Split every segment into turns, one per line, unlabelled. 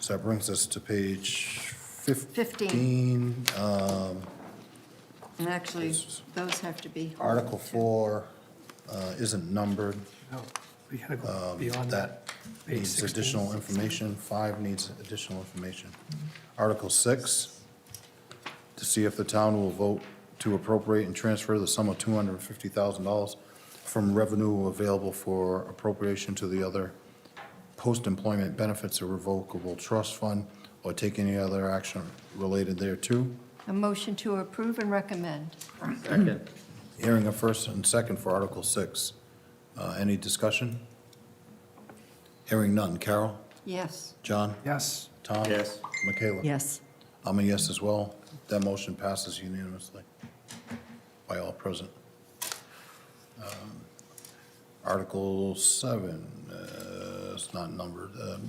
So that brings us to page 15.
Fifteen.
Um,
And actually, those have to be.
Article 4 uh, isn't numbered.
No, we gotta go beyond that. Page
Needs
16.
additional information. 5 needs additional information. Article 6, to see if the town will vote to appropriate and transfer the sum of $250,000 from revenue available for appropriation to the other post-employment benefits or revocable trust fund, or take any other action related thereto.
A motion to approve and recommend.
Second.
Hearing a first and second for Article 6. Uh, Any discussion? Hearing none. Carol?
Yes.
John?
Yes,
Tom?
Yes.
Michaela?
Yes.
I'm a yes as well. That motion passes unanimously by all present. Um, Article 7, uh, it's not numbered. Um,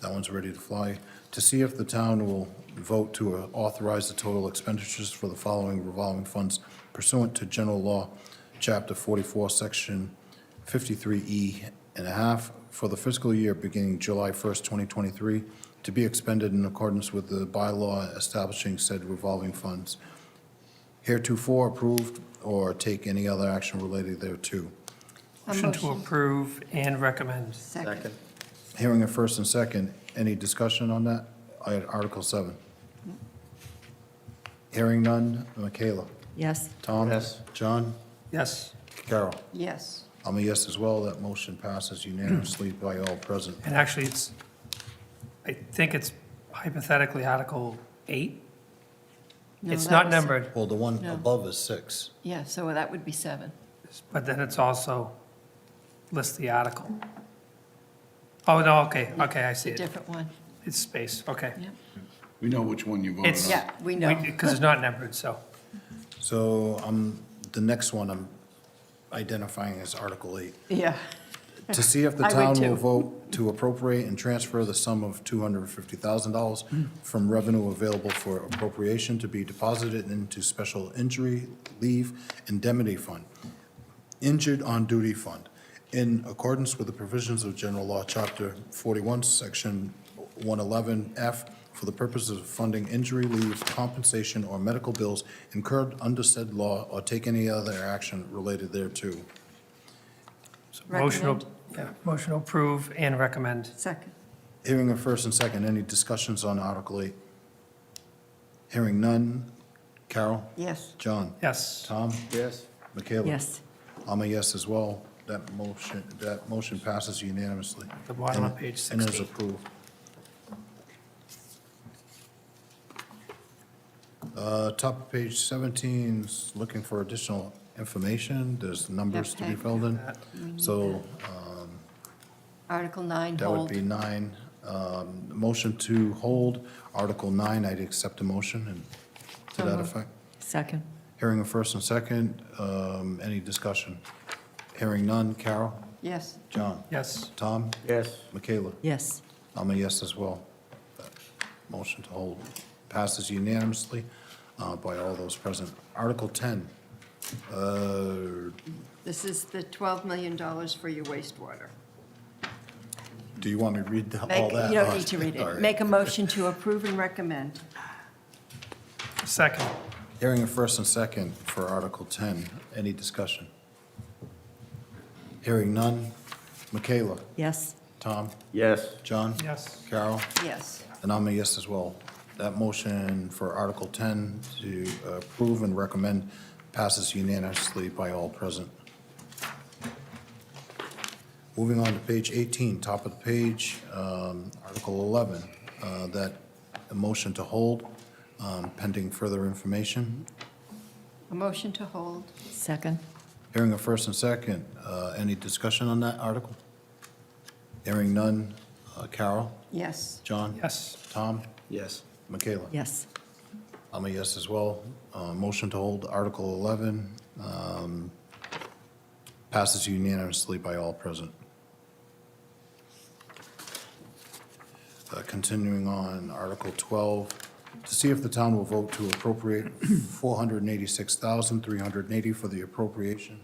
That one's ready to fly. To see if the town will vote to uh, authorize the total expenditures for the following revolving funds pursuant to General Law, Chapter 44, Section 53E and a half for the fiscal year beginning July 1st, 2023, to be expended in accordance with the bylaw establishing said revolving funds heretofore approved or take any other action related thereto.
A
motion to approve and recommend.
Second.
Hearing a first and second, any discussion on that? I- Article 7. Hearing none, Michaela?
Yes.
Tom?
Yes.
John?
Yes,
Carol?
Yes.
I'm a yes as well, that motion passes unanimously by all present.
and actually, it's, I think it's hypothetically Article 8.
No,
It's
that
not
was-
numbered,
Well, the one
No.
above is 6.
Yeah, so that would be seven.
but then it's also lists the article. Oh, no, okay, okay, I see
It's a
it.
different one.
It's space, okay.
Yeah.
We know which one you voted
It's-
on.
Yeah, we know.
Because it's not numbered, so,
So um, the next one I'm identifying as Article 8.
Yeah.
To see if the
I would
town
too.
will vote to appropriate and transfer the sum of $250,000 from revenue available for appropriation to be deposited into Special Injury Leave Indemnity Fund, Injured on Duty Fund, in accordance with the provisions of General Law, Chapter 41, Section 111F, for the purposes of funding injury leave, compensation, or medical bills incurred under said law, or take any other action related thereto.
motion, to-
Recommend.
yeah, motion to approve and recommend.
Second.
Hearing a first and second, any discussions on Article 8? Hearing none. Carol?
Yes.
John?
Yes,
Tom?
Yes.
Michaela?
Yes.
I'm a yes as well. That motion, that motion passes unanimously.
The bottom of
And-
page
And is
16.
approved. Uh, Top of page 17 's looking for additional information. There's numbers to be
Okay.
filled in. So
Article nine,
that would
hold.
be nine. Um, Motion to hold Article 9, I'd accept a motion and to
So
that
moved.
effect.
Second.
Hearing a first and second, um, any discussion? Hearing none. Carol?
Yes.
John?
yes,
Tom?
Yes.
Michaela?
Yes.
I'm a yes as well. Motion to hold passes unanimously uh, by all those present. Article 10, uh,
This is the $12 million for your wastewater.
do you want me to read the- all
Make-
that?
You don't need to read
All right.
it. Make a motion to approve and recommend.
second.
Hearing a first and second for Article 10. Any discussion? Hearing none. Michaela?
Yes.
Tom?
Yes.
John?
Yes.
Carol?
Yes.
And I'm a yes as well. That motion for Article 10 to approve and recommend passes unanimously by all present. Moving on to page 18, top of the page, um, Article 11, uh, that a motion to hold um, pending further information.
A motion to hold.
Second.
Hearing a first and second, uh, any discussion on that article? Hearing none. Uh, Carol?
Yes.
John?
Yes,
Tom?
Yes.
Michaela?
Yes.
I'm a yes as well. Uh, Motion to hold Article 11 um, passes unanimously by all present. Uh, Continuing on, Article 12, to see if the town will vote to appropriate 486380 for the appropriation